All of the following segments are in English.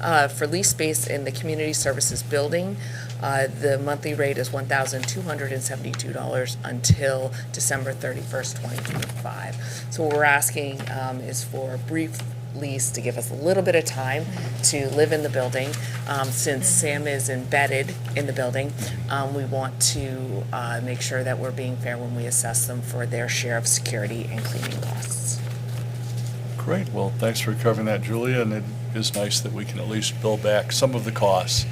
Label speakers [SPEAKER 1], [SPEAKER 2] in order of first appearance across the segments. [SPEAKER 1] uh, for lease space in the Community Services Building. Uh, The monthly rate is $1,272 until December 31st, 2025. So what we're asking um, is for a brief lease to give us a little bit of time to live in the building. Um, Since Sam is embedded in the building, um, we want to uh, make sure that we're being fair when we assess them for their share of security and cleaning costs.
[SPEAKER 2] Great, well, thanks for covering that, Julia, and it is nice that we can at least bill back some of the costs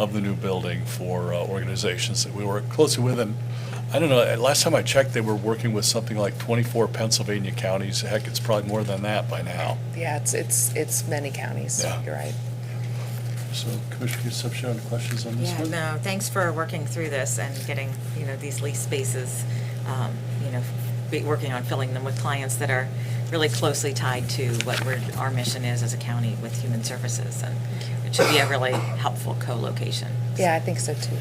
[SPEAKER 2] of the new building for uh, organizations that we work closely with, and I don't know, uh, last time I checked, they were working with something like 24 Pennsylvania counties, heck, it's probably more than that by now.
[SPEAKER 1] Yeah, it's, it's, it's many counties,
[SPEAKER 2] Yeah.
[SPEAKER 1] you're right.
[SPEAKER 2] So Commissioner Concepcion, any questions on this
[SPEAKER 3] Yeah,
[SPEAKER 2] one?
[SPEAKER 3] no, thanks for working through this and getting, you know, these lease spaces, um, you know, be working on filling them with clients that are really closely tied to what we're, our mission is as a county with human services. And it should be a really helpful co-location.
[SPEAKER 1] Yeah, I think so too.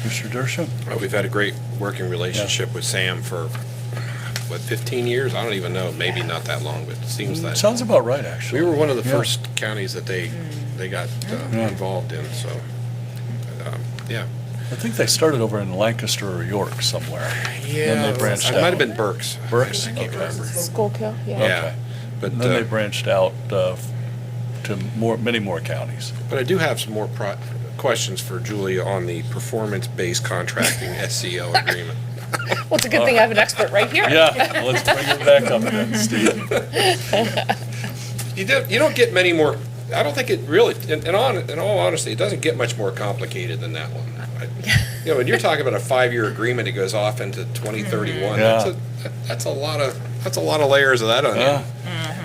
[SPEAKER 2] Commissioner Dershowitz?
[SPEAKER 4] Uh, We've had a great working relationship with Sam for, what, 15 years? I don't even know, maybe not that long, but it seems that.
[SPEAKER 2] Sounds about right, actually.
[SPEAKER 4] We were one of the
[SPEAKER 2] Yeah.
[SPEAKER 4] first counties that they, they got uh,
[SPEAKER 2] Yeah.
[SPEAKER 4] involved in, so, um, yeah.
[SPEAKER 2] I think they started over in Lancaster or York somewhere. Then they branched out.
[SPEAKER 4] It might have been Burke's.
[SPEAKER 2] Burke's?
[SPEAKER 4] I can't
[SPEAKER 2] Okay.
[SPEAKER 4] remember.
[SPEAKER 1] Schuylkill, yeah.
[SPEAKER 2] Okay.
[SPEAKER 4] Yeah. But,
[SPEAKER 2] And then they
[SPEAKER 4] uh,
[SPEAKER 2] branched out uh, to more, many more counties.
[SPEAKER 4] But I do have some more pro- questions for Julia on the performance-based contracting SEO agreement.
[SPEAKER 1] Well, it's a good thing I have an expert right here.
[SPEAKER 2] Yeah, let's bring it back up then, Steve.
[SPEAKER 4] You don't, you don't get many more, I don't think it really, in, in hon- in all honesty, it doesn't get much more complicated than that one. I- You know, when you're talking about a five-year agreement that goes off into 2031, that's
[SPEAKER 2] Yeah.
[SPEAKER 4] a, that's a lot of, that's a lot of layers of that on
[SPEAKER 2] Yeah.
[SPEAKER 4] there.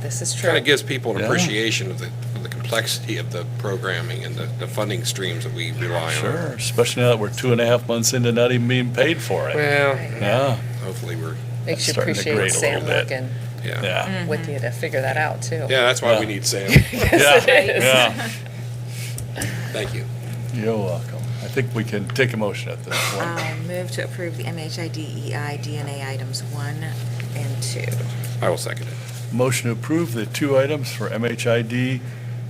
[SPEAKER 1] This is
[SPEAKER 4] Kind
[SPEAKER 1] true.
[SPEAKER 4] of gives people an
[SPEAKER 2] Yeah.
[SPEAKER 4] appreciation of the, of the complexity of the programming and the, the funding streams that we rely on.
[SPEAKER 2] Sure, especially now that we're two and a half months into not even being paid for it.
[SPEAKER 4] Well,
[SPEAKER 2] Yeah,
[SPEAKER 4] hopefully we're,
[SPEAKER 1] Makes you
[SPEAKER 2] starting to
[SPEAKER 1] appreciate
[SPEAKER 2] grate a
[SPEAKER 1] Sam
[SPEAKER 2] little bit.
[SPEAKER 1] working
[SPEAKER 4] yeah.
[SPEAKER 2] yeah,
[SPEAKER 1] with you to figure that out too.
[SPEAKER 4] Yeah, that's why we
[SPEAKER 2] Yeah.
[SPEAKER 4] need Sam.
[SPEAKER 2] yeah,
[SPEAKER 1] is.
[SPEAKER 2] yeah.
[SPEAKER 4] Thank you.
[SPEAKER 2] You're welcome. I think we can take a motion at this point.
[SPEAKER 3] Um, Move to approve the MHIDEI DNA items one and two.
[SPEAKER 4] I will second it.
[SPEAKER 2] Motion to approve the two items for MHID,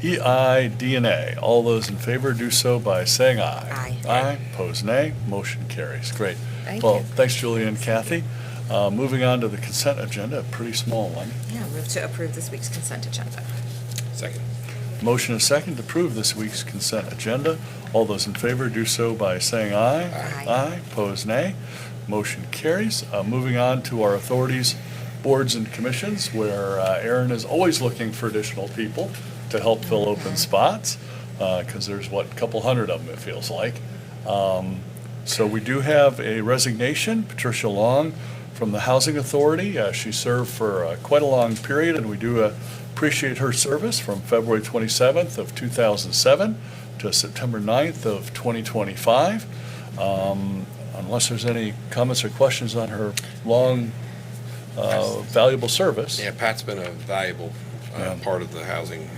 [SPEAKER 2] E EI, DNA. All those in favor do so by saying aye.
[SPEAKER 3] Aye.
[SPEAKER 2] Aye, pose nay, motion carries. Great.
[SPEAKER 1] Thank
[SPEAKER 2] Well,
[SPEAKER 1] you.
[SPEAKER 2] thanks Julie and Kathy. Uh, Moving on to the consent agenda, a pretty small one.
[SPEAKER 3] Yeah, move to approve this week's consent agenda.
[SPEAKER 4] Second.
[SPEAKER 2] Motion and second to approve this week's consent agenda. All those in favor do so by saying aye.
[SPEAKER 3] Aye.
[SPEAKER 2] Aye, pose nay. Motion carries. Uh, Moving on to our authorities, boards, and commissions, where uh, Aaron is always looking for additional people to help fill open spots, because there's, what, a couple hundred of them, it feels like. Um, So we do have a resignation, Patricia Long, from the Housing Authority. Uh, She served for uh, quite a long period, and we do uh, appreciate her service from February 27th of 2007 to September 9th of 2025. Um, Unless there's any comments or questions on her long, uh, valuable service.
[SPEAKER 4] Yeah, Pat's been a valuable uh,
[SPEAKER 2] Yeah.
[SPEAKER 4] part of the Housing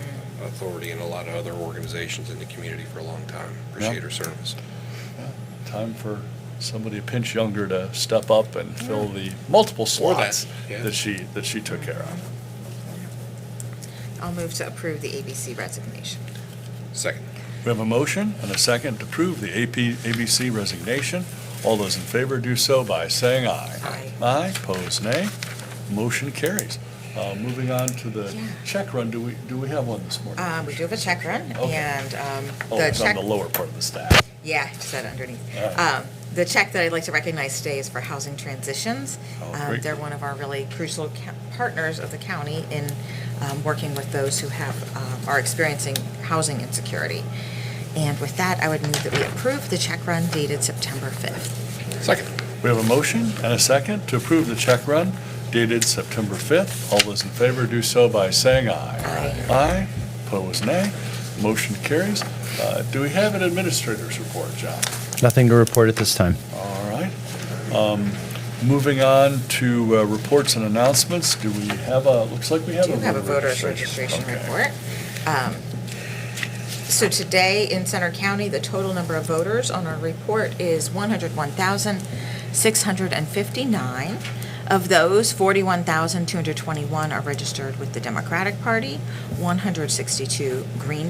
[SPEAKER 4] Authority and a lot of other organizations in the community for a long time. Appreciate her service.
[SPEAKER 2] Time for somebody a pinch younger to step up and fill the multiple
[SPEAKER 4] Or that,
[SPEAKER 2] slots
[SPEAKER 4] yeah.
[SPEAKER 2] that she, that she took care of.
[SPEAKER 3] I'll move to approve the ABC resignation.
[SPEAKER 4] Second.
[SPEAKER 2] We have a motion and a second to approve the AP ABC resignation. All those in favor do so by saying aye.
[SPEAKER 3] Aye.
[SPEAKER 2] Aye, pose nay. Motion carries. Uh, Moving on to the
[SPEAKER 3] Yeah.
[SPEAKER 2] check run, do we, do we have one this morning?
[SPEAKER 3] Uh, We do have a check run,
[SPEAKER 2] Okay.
[SPEAKER 3] and um,
[SPEAKER 2] Oh,
[SPEAKER 3] the
[SPEAKER 2] it's on
[SPEAKER 3] check
[SPEAKER 2] the lower part of the stack.
[SPEAKER 3] Yeah, just that underneath.
[SPEAKER 2] Alright.
[SPEAKER 3] Um, The check that I'd like to recognize today is for Housing Transitions.
[SPEAKER 2] Oh,
[SPEAKER 3] Um,
[SPEAKER 2] great.
[SPEAKER 3] They're one of our really crucial ca- partners of the county in um, working with those who have, um, are experiencing housing insecurity. And with that, I would move that we approve the check run dated September 5th.
[SPEAKER 4] Second.
[SPEAKER 2] We have a motion and a second to approve the check run dated September 5th. All those in favor do so by saying aye. Aye. Aye, pose nay. Motion carries. Uh, Do we have an administrator's report, John?
[SPEAKER 5] Nothing to report at this time.
[SPEAKER 2] All right. Um, Moving on to uh, reports and announcements, do we have a, looks like we have a.
[SPEAKER 3] Do have a
[SPEAKER 2] voter
[SPEAKER 3] voter's registration
[SPEAKER 2] Okay.
[SPEAKER 3] report. Um, So today, in Center County, the total number of voters on our report is 101,659. Of those, 41,221 are registered with the Democratic Party, 162 Green